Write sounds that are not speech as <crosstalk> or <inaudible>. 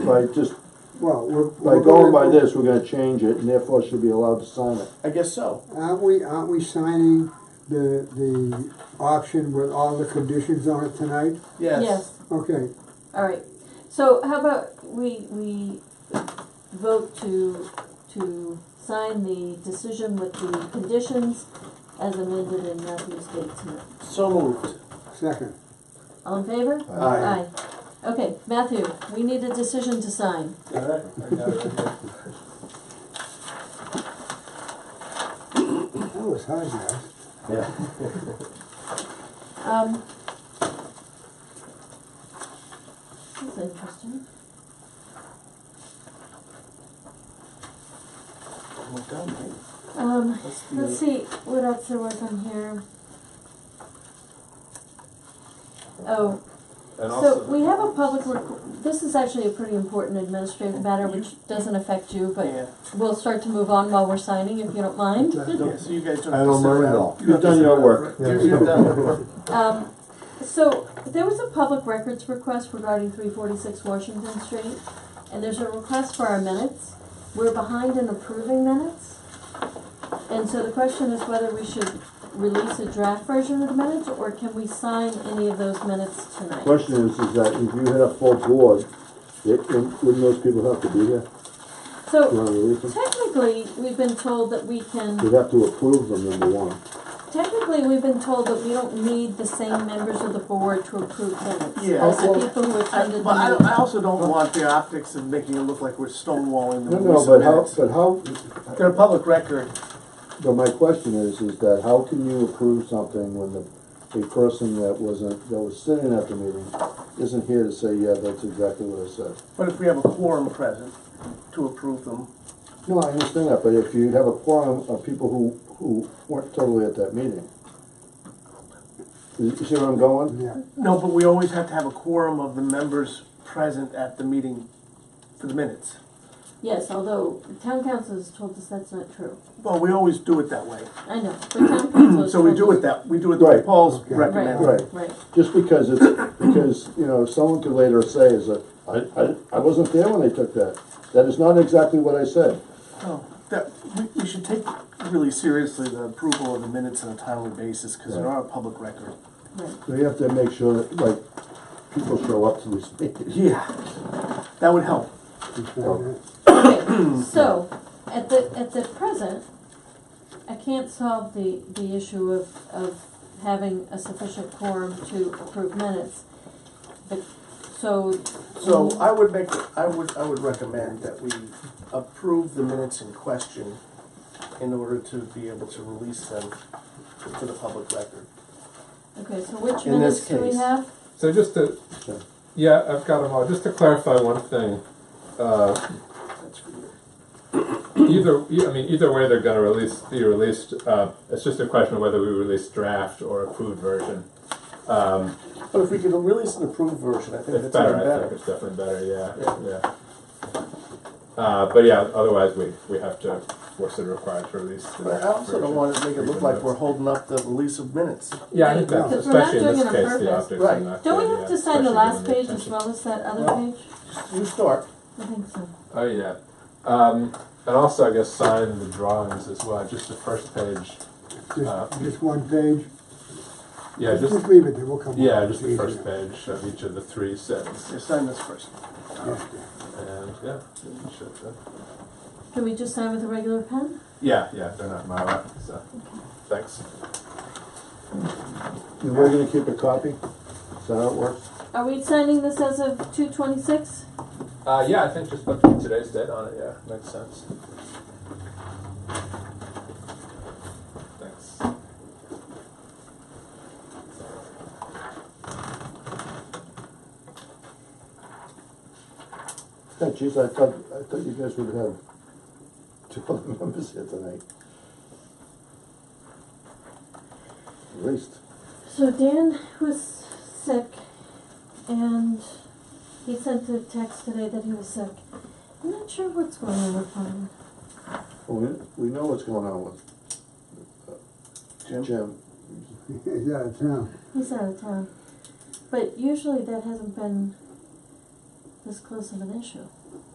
by just, Well, we're. by we're going by gonna- this, we're gonna change it, and therefore should be allowed to sign it. I guess so. Aren't we, aren't we signing the, the option with all the conditions on it tonight? Yes. Yes, Okay, all right. So how about we, we vote to, to sign the decision with the conditions as amended in Matthew's date tonight. So moved. second. All in favor? Aye. Okay, Matthew, we need a decision to sign. Alright, I got it. That was hard, guys. Um, that's interesting. Well done, mate. Um, That's the- let's see what else there was on here. Oh, So And also, we have a public, rec- this is actually a pretty important administrative matter, which doesn't affect you, but Yeah, we'll start to move on while we're signing, if you don't mind. yeah, so you guys don't. I have to don't sit mind at around. all. You don't You've have to done sit your around. work. You- You've done your <laughs> work. Um, so there was a public records request regarding three forty-six Washington Street, and there's a request for our minutes. We're behind in approving minutes. And so the question is whether we should release a draft version of the minutes, or can we sign any of those minutes tonight? Question is, is that if you had a full board, it, wouldn't those people have to be here? You So wanna release them? technically, we've been told that we can. We'd have to approve them, number one. Technically, we've been told that we don't need the same members of the board to approve minutes. Yeah. As the people who I- attended But I, the don't- I meeting. also don't want the optics of making it look like we're stonewalling No, the no, rules but and how, minutes. but how, They're a public record. but my question is, is that how can you approve something when the, a person that wasn't, that was sitting at the meeting isn't here to say, yeah, that's exactly what I said? But if we have a quorum present to approve them, No, I understand that, but if you have a quorum of people who, who weren't totally at that meeting. You see where I'm going? Yeah, no, but we always have to have a quorum of the members present at the meeting for the minutes. Yes, although town council has told us that's not true. Well, we always do it that way. I know, but town council <clears throat> has So we told do us- it that, we do it the way Right. Paul's Okay. recommending. Right. Right, right. Just because it's, because, you know, someone could later say is that, I, I, I wasn't there when they took that. That is not exactly what I said. Oh, that, we, we should take really seriously the approval of the minutes on a timely basis, cause they are a public record. right. So you have to make sure that, like, people show up to these meetings. Yeah, that would help. before Okay, <clears throat> so, at the, at the present, I can't solve the, the issue of, of having a sufficient quorum to approve minutes. But, so, So I would make, I would, I would recommend that we approve the minutes in question in order to be able to release them to the public record. okay, so which In minutes this do we case. have? so just to, yeah, I've got them all. Just to clarify one <clears throat> thing, uh, That's good. either, e- I mean, either way, they're gonna release, be released. Uh, it's just a question of whether we release draft or approved version. Um, But if we could release an approved version, I think it's that's even better, I think better. it's definitely better, yeah, Yeah. yeah. Uh, but yeah, otherwise, we, we have to, we're sort of required to release. the But I also don't version, want to make it look even like though we're it's- holding up the release of minutes. Yeah, I think that's, Because we're not especially in this doing it on case, the purpose. optics are Right. not good, yeah. Don't we have to sign the especially last given page as attention. well as that other Well- page? You start. I think so. Oh yeah, um, and also I guess sign the drawings as well. Just the first page. Just, just one page, Uh, Yeah, just just leave it there, we'll come. yeah, up just with the it first easier. <laughs> page of each of the three sets, You sign this first. Yeah, yeah. and yeah, it should, uh, Can we just sign with a regular pen? yeah, yeah. They're not my lap, so thanks. And we're gonna keep a copy? Is that how it works? Are we signing this as of two twenty-six? Uh, yeah, I think just put today's date on it. Yeah, makes sense. Thanks. Yeah, geez, I thought, I thought you guys would have two <laughs> other members here tonight. At least. So Dan was sick and he sent a text today that he was sick. I'm not sure what's going on with him. Well, We, we know what's going on with uh, Jim? Jim. He's out of town. He's out of town. But usually that hasn't been this close of an issue.